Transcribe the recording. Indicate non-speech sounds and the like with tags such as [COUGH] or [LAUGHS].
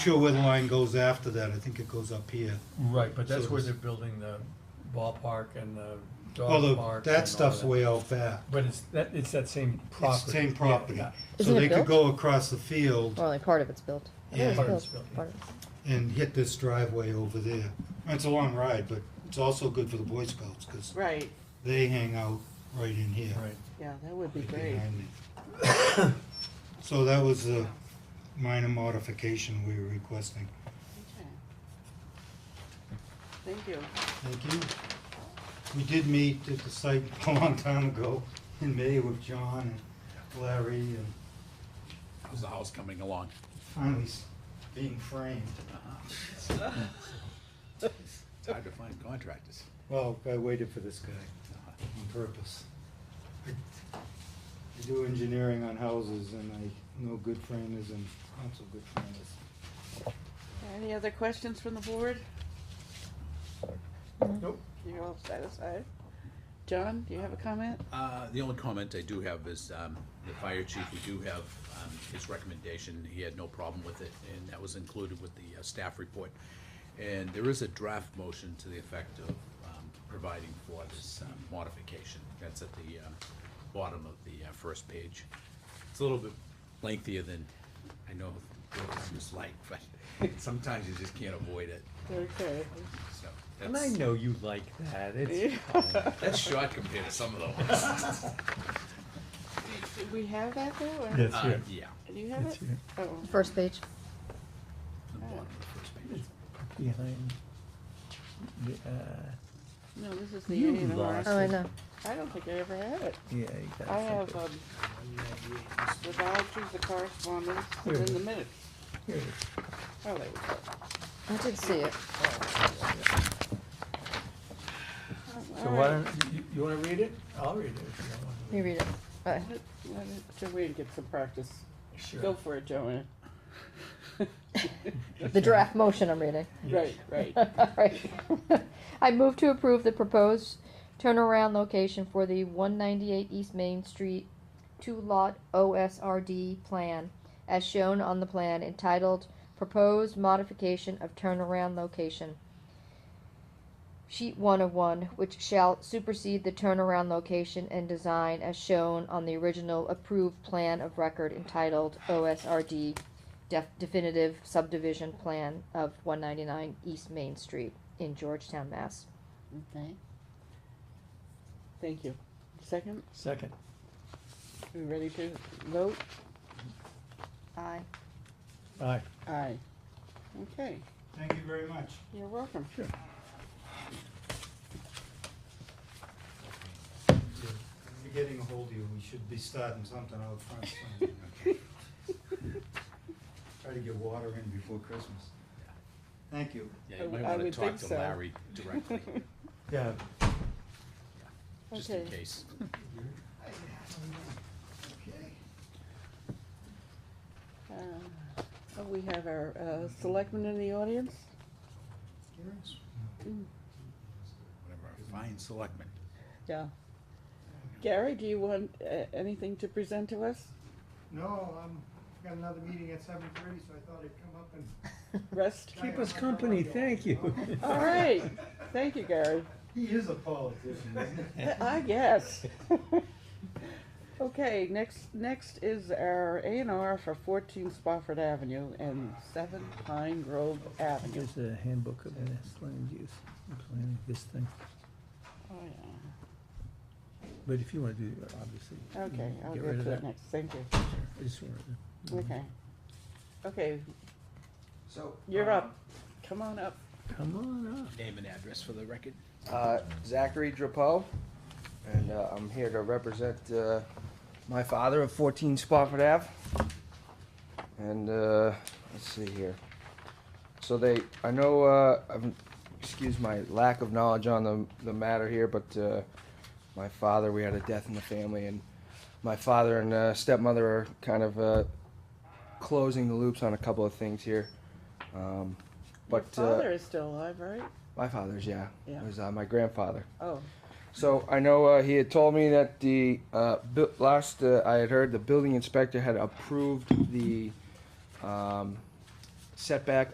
sure where the line goes after that, I think it goes up here. Right, but that's So where it's- they're building the ballpark and the dog Although, park. and all that stuff's way out back. But it's, that, it's that same It's property. the same property. Yeah, So Isn't it they could built? go across the field Well, only part of it's built. I think Yeah. it's Part of it's built, yeah. Part of it's- and hit this driveway over there. It's a long ride, but it's also good for the Boy Scouts, because Right, they hang out right in here. yeah. Right, yeah, that would be right great. behind me. [COUGHS] So that was the minor modification we were requesting. Okay. Thank you. Thank you. We did meet at the site [LAUGHS] a long time ago in May with John and Larry and How's the house coming along? finally s- being framed. It's hard to find contractors. Well, I waited for this guy uh, on purpose. I I do engineering on houses and I know good framers and not so good framers. Any other questions from the board? Nope. You're all satisfied? John, do you have a comment? Uh, the only comment I do have is, um, the fire chief, we do have, um, his recommendation, he had no problem with it, and that was included with the uh, staff report. And there is a draft motion to the effect of, um, providing for this um, modification, that's at the, um, bottom of the uh, first page. It's a little bit lengthier than I know it's like, [LAUGHS] but sometimes you just can't avoid it, Okay. so. and I that's- know you like that, it's, [LAUGHS] That's short compared to some of the ones. [LAUGHS] Did we have that though, or? Yes. It's Uh, here. yeah. Do you have it? It's here. Oh, First page. The bottom of the first page. behind, the, uh, no, this is the You A and R. lost Oh, I it. know. I don't think I ever had it. yeah, you got I have, something. um, the vouchers, the correspondence, Here and it then the is. minutes. Here it is. Oh, there we go. I did see it. So All why right. don't, you, you wanna read it? I'll read it if you don't wanna. You read it. Uh, Bye. Let- let it- Joanne get some practice. Sure. Go for it, Joanne. [LAUGHS] The draft motion I'm reading. Right, right. [LAUGHS] Alright. [LAUGHS] I move to approve the proposed turnaround location for the one ninety-eight East Main Street two lot OSRD plan as shown on the plan entitled Proposed Modification of Turnaround Location. Sheet one of one, which shall supersede the turnaround location and design as shown on the original approved plan of record entitled OSRD def- definitive subdivision plan of one ninety-nine East Main Street in Georgetown, Mass. Okay. Thank you. Second, Second, are we ready to vote? Aye. aye. Aye. Okay, Thank you very much. you're welcome. [LAUGHS] Sure. We're getting a hold of you, we should be starting something out front. soon. Try to get water in before Christmas. Thank you. Yeah, you might I wanna would talk think to so. Larry directly, Yeah. just in Okay. case. We have our uh, selectmen in the audience. Whatever, Fine selectmen. Yeah. Gary, do you want uh, anything to present to us? No, I'm, I've got another meeting at seven thirty, so I thought I'd come up and. Rest? Keep us company, thank you. All right, thank you, Gary. He is a politician, isn't he? [LAUGHS] I guess. Okay, next, next is our A and R for fourteen Spofford Avenue and seven Pine Grove Avenue. Here's the handbook of this land use, I'm planning this thing, Oh, yeah. but if you wanna do, it, obviously. you Okay, Mm, can I'll get rid get of to it that. next, thank you. I just wanted Mm-hmm. to. Okay. Okay, So. you're Uh-huh. um, up. Come on up. Come on up. Name and address for the record. Uh, Zachary Drapeau, and uh, I'm here to represent uh, my father of 14 Spofford Ave. And uh, let's see here. So they, I know, uh, I'm, excuse my lack of knowledge on the, the matter here, but uh, my father, we had a death in the family, and my father and uh, stepmother are kind of uh, closing the loops on a couple of things here. Um, Your but father uh, is still alive, right? my father's, yeah, Yeah. was uh, my grandfather. Oh, So I know uh, he had told me that the uh, bu- last uh, I had heard the building inspector had approved the um, setback